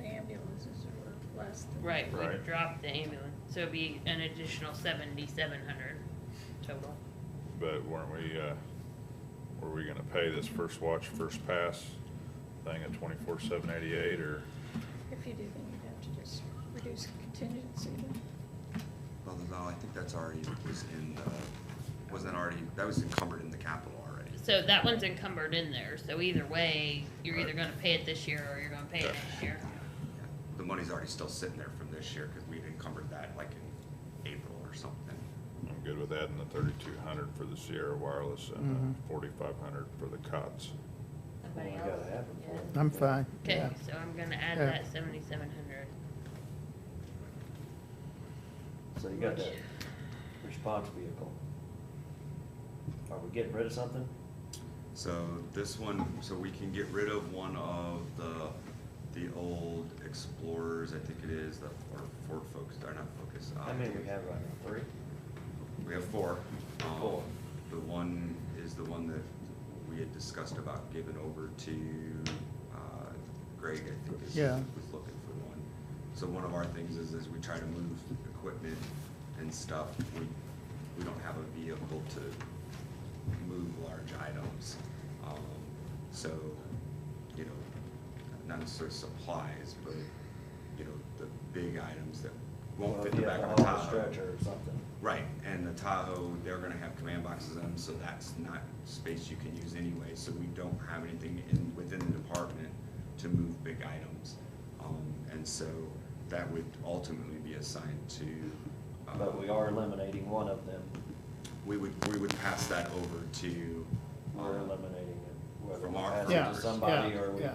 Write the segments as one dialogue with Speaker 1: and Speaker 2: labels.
Speaker 1: ambulances are less than.
Speaker 2: Right, we
Speaker 3: Right.
Speaker 2: dropped the ambulance, so it'd be an additional seventy-seven hundred total.
Speaker 3: But weren't we, uh, were we gonna pay this first watch, first pass thing at twenty-four, seven eighty-eight, or?
Speaker 1: If you do, then you'd have to just reduce contingency then.
Speaker 4: Well, no, I think that's already, was in, uh, wasn't already, that was encumbered in the capital already.
Speaker 2: So that one's encumbered in there, so either way, you're either
Speaker 4: Right.
Speaker 2: gonna pay it this year or you're gonna pay it
Speaker 3: Yeah.
Speaker 2: next year.
Speaker 4: Yeah. The money's already still sitting there from this year, cause we'd encumbered that like in April or something.
Speaker 3: I'm good with adding the thirty-two hundred for the Sierra Wireless and
Speaker 5: Mhm.
Speaker 3: forty-five hundred for the COTS.
Speaker 2: Somebody
Speaker 6: Well, we
Speaker 2: else?
Speaker 6: gotta have it
Speaker 2: Yeah.
Speaker 6: for 'em.
Speaker 5: I'm fine.
Speaker 2: Okay,
Speaker 5: yeah.
Speaker 2: so I'm gonna add
Speaker 5: Yeah.
Speaker 2: that seventy-seven hundred.
Speaker 6: So you got
Speaker 2: Which-
Speaker 6: that response vehicle. Are we getting rid of something?
Speaker 4: So this one, so we can get rid of one of the, the old Explorers, I think it is, the, or Ford Focus, or not Focus. uh,
Speaker 6: How many we have right now? Three?
Speaker 4: We have four. Um,
Speaker 6: Four.
Speaker 4: The one is the one that we had discussed about giving over to, uh, Greg, I think is,
Speaker 5: Yeah.
Speaker 4: was looking for one. So one of our things is, is we try to move equipment and stuff, we, we don't have a vehicle to move large items. Um, So, you know, not necessarily supplies, but, you know, the big items that won't
Speaker 6: Well,
Speaker 4: fit the
Speaker 6: yeah,
Speaker 4: back
Speaker 6: the
Speaker 4: of a
Speaker 6: whole
Speaker 4: Tahoe.
Speaker 6: Stretcher or something.
Speaker 4: Right, and the Tahoe, they're gonna have command boxes in them, so that's not space you can use anyway, so we don't have anything in, within the department to move big items. Um, and so that would ultimately be assigned to, uh,
Speaker 6: But we are eliminating one of them.
Speaker 4: we would, we would pass that over to,
Speaker 6: We're
Speaker 4: uh,
Speaker 6: eliminating it. Whether
Speaker 4: From
Speaker 6: we
Speaker 4: our
Speaker 6: pass it
Speaker 5: Yeah,
Speaker 6: to somebody
Speaker 5: yeah,
Speaker 6: or we
Speaker 5: yeah.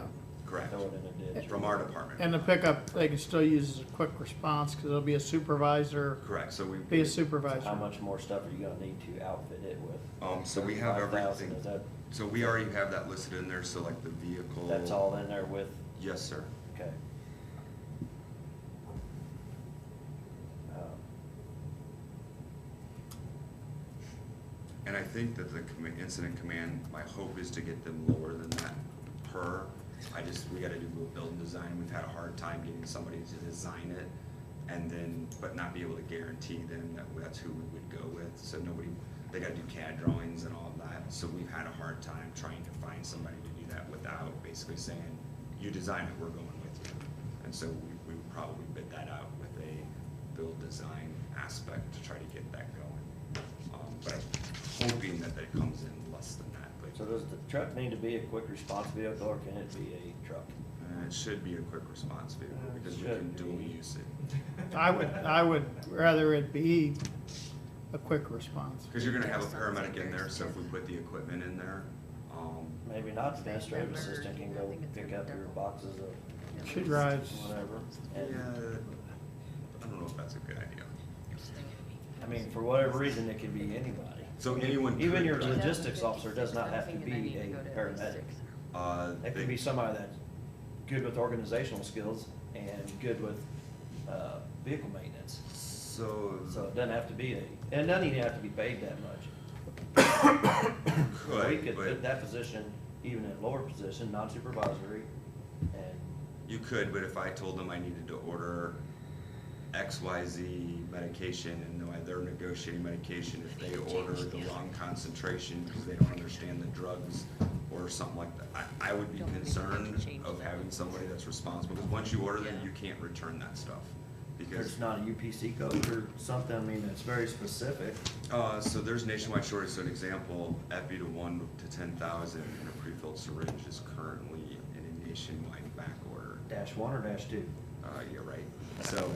Speaker 4: correct,
Speaker 6: throw it in a ditch.
Speaker 4: from our department.
Speaker 5: And the pickup, they can still use as a quick response, cause it'll be a supervisor,
Speaker 4: Correct, so we.
Speaker 5: be a
Speaker 6: How
Speaker 5: supervisor.
Speaker 6: much more stuff are you gonna need to outfit it with?
Speaker 4: Um, so we have
Speaker 6: 35,000,
Speaker 4: everything.
Speaker 6: Is that,
Speaker 4: So we already have that listed in there, so like the vehicle.
Speaker 6: that's all in there with,
Speaker 4: Yes, sir.
Speaker 6: okay. Um,
Speaker 4: And I think that the commi- incident command, my hope is to get them lower than that per. I just, we gotta do a building design, we've had a hard time getting somebody to design it and then, but not be able to guarantee them that that's who we would go with, so nobody, they gotta do CAD drawings and all of that, so we've had a hard time trying to find somebody to do that without basically saying, you design it, we're going with you. And so we, we would probably bid that out with a build design aspect to try to get that going. Um, but I'm hoping that that comes in less than that, but.
Speaker 6: So does the truck need to be a quick response vehicle or can it be a truck?
Speaker 4: Uh, it should be a quick response vehicle
Speaker 6: Uh,
Speaker 4: because we
Speaker 6: should
Speaker 4: can dual
Speaker 6: be.
Speaker 4: use it.
Speaker 5: I would, I would rather it be a quick response.
Speaker 4: Because you're gonna have a paramedic in there, so if we put the equipment in there, um,
Speaker 6: Maybe not, the administrative
Speaker 1: Remember,
Speaker 6: assistant can
Speaker 1: I
Speaker 6: go
Speaker 1: think it's
Speaker 6: pick
Speaker 1: gonna
Speaker 6: up your
Speaker 1: double.
Speaker 6: boxes of
Speaker 5: She drives,
Speaker 6: whatever.
Speaker 4: yeah,
Speaker 6: And,
Speaker 4: I don't know if that's a good idea.
Speaker 6: I mean, for whatever reason, it could be anybody.
Speaker 4: So anyone
Speaker 6: Even
Speaker 4: could
Speaker 6: your
Speaker 4: drive.
Speaker 6: logistics officer does not have to be a paramedic.
Speaker 4: Uh,
Speaker 6: That could
Speaker 4: they-
Speaker 6: be somebody that's good with organizational skills and good with, uh, vehicle maintenance.
Speaker 4: So
Speaker 6: So it doesn't have to be a, and it doesn't even have to be paid that much. We
Speaker 4: could,
Speaker 6: could put
Speaker 4: but
Speaker 6: that position, even in lower position, non-supervisory, and
Speaker 4: you could, but if I told them I needed to order X, Y, Z medication and they're- they're negotiating medication, if they order the wrong concentration because they don't understand the drugs or something like that, I, I would be
Speaker 2: Don't think we can
Speaker 4: concerned
Speaker 2: change
Speaker 4: of
Speaker 2: that.
Speaker 4: having somebody that's responsible. Because once you order them,
Speaker 2: Yeah.
Speaker 4: you can't return that stuff. Because
Speaker 6: there's not a UPC code or something, I mean, that's very specific.
Speaker 4: Uh, so there's nationwide shortage, so an example, epi to one to ten thousand in a prefilled syringe is currently in a nationwide back order.
Speaker 6: Dash one or dash two?
Speaker 4: Uh, you're right, so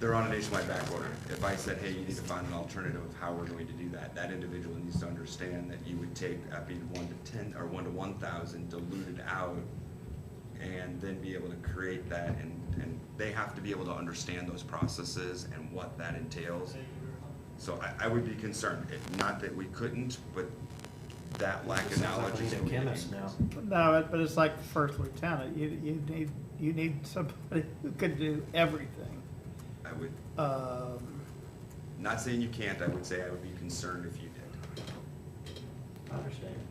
Speaker 4: they're on a nationwide back order. If I said, hey, you need to find an alternative of how we're going to do that, that individual needs to understand that you would take epi to one to ten, or one to one thousand diluted out and then be able to create that and, and they have to be able to understand those processes and what that entails. So I, I would be concerned, if, not that we couldn't, but that lack of
Speaker 6: Sounds like
Speaker 4: knowledge
Speaker 6: we
Speaker 4: is
Speaker 6: need a
Speaker 4: what we
Speaker 6: chemist
Speaker 4: need.
Speaker 6: now.
Speaker 5: no, it- but it's like the first lieutenant, you, you need, you need somebody who could do everything.
Speaker 4: I would,
Speaker 5: Um,
Speaker 4: not saying you can't, I would say I would be concerned if you did.
Speaker 6: I understand.